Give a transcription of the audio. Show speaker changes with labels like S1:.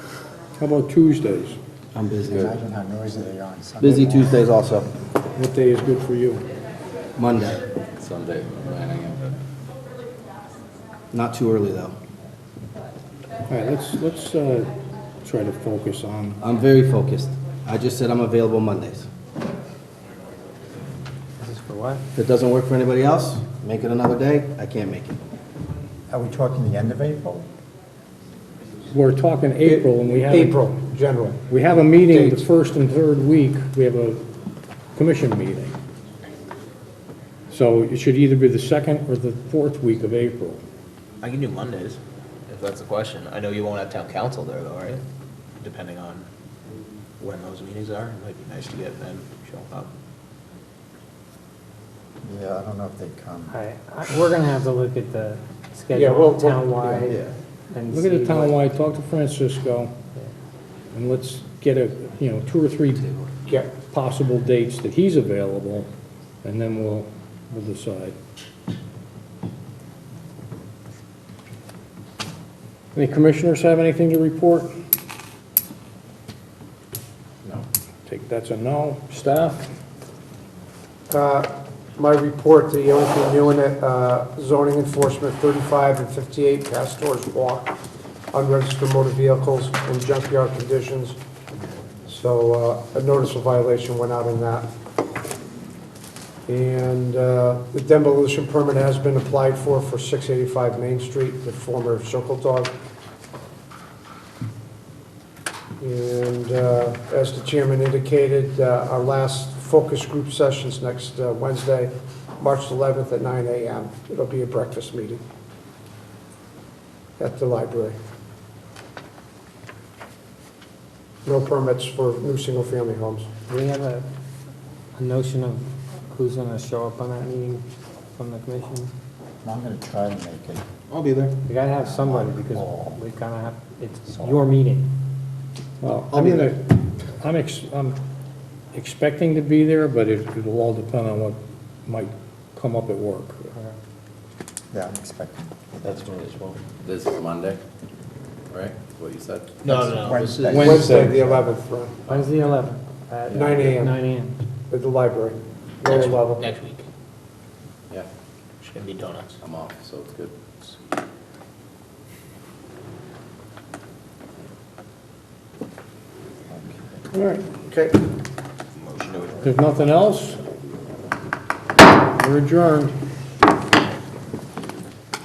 S1: How about Tuesdays?
S2: I'm busy.
S3: Imagine how noisy they are on Sunday.
S2: Busy Tuesdays also,
S1: What day is good for you?
S2: Monday.
S4: Sunday, 9 a.m.
S2: Not too early, though.
S1: All right, let's, let's uh, try to focus on,
S2: I'm very focused. I just said I'm available Mondays.
S3: This is for what?
S2: If it doesn't work for anybody else, make it another day. I can't make it.
S3: Are we talking the end of April?
S1: we're talking April, and we have...
S5: April, general.
S1: We have a meeting the
S5: Dates.
S1: first and third week, we have a commission meeting. So it should either be the second or the fourth week of April.
S6: I can do Mondays, if that's the question. I know you won't have town council there though, right? Depending on when those meetings are, it might be nice to get them showing up.
S3: Yeah, I don't know if they come.
S7: All right, I- we're gonna have to look at the
S5: Yeah, we'll-
S7: schedule
S5: we'll-
S7: townwide
S3: Yeah.
S7: and
S1: Look at the
S7: see what-
S1: townwide, talk to Francisco, and let's get a, you know, two or three
S5: Yeah,
S1: possible dates that he's available, and then we'll, we'll decide. Any commissioners have anything to report? No. Take, that's a no. Staff?
S5: Uh, My report, the only thing new in it, uh, zoning enforcement, 35 and 58 Pastors Walk, unregistered motor vehicles in junkyard conditions. So uh, a notice of violation went out on that. And uh, the demolition permit has been applied for, for 685 Main Street, the former Circle Dog. And uh, as the chairman indicated, uh, our last focus group session's next uh, Wednesday, March 11th at 9 a.m. It'll be a breakfast meeting at the library. No permits for new single-family homes.
S7: Do we have a a notion of who's gonna show up on that meeting from the commission?
S3: I'm going to try to make it.
S2: I'll be there.
S7: We gotta have somebody because we kinda have, it's your meeting.
S1: Well,
S2: I'll
S1: I'm
S2: be
S1: gonna, I'm ex, I'm expecting to be there, but it, it'll all depend on what might come up at work.
S3: Yeah, I'm expecting.
S4: That's when it's well. This is Monday, right? What you said?
S6: No, no, no, this is,
S3: Wednesday.
S5: Wednesday, the 11th, right,
S7: When's the 11th? At
S5: 9 a.m.
S7: Nine AM.
S5: at the library, lower level.
S6: next week,
S4: Yeah,
S6: it's gonna be donuts.
S4: I'm off, so it's good.
S1: All right,
S5: Okay.
S6: Motion to adjourn.
S1: if there's nothing else, we're adjourned.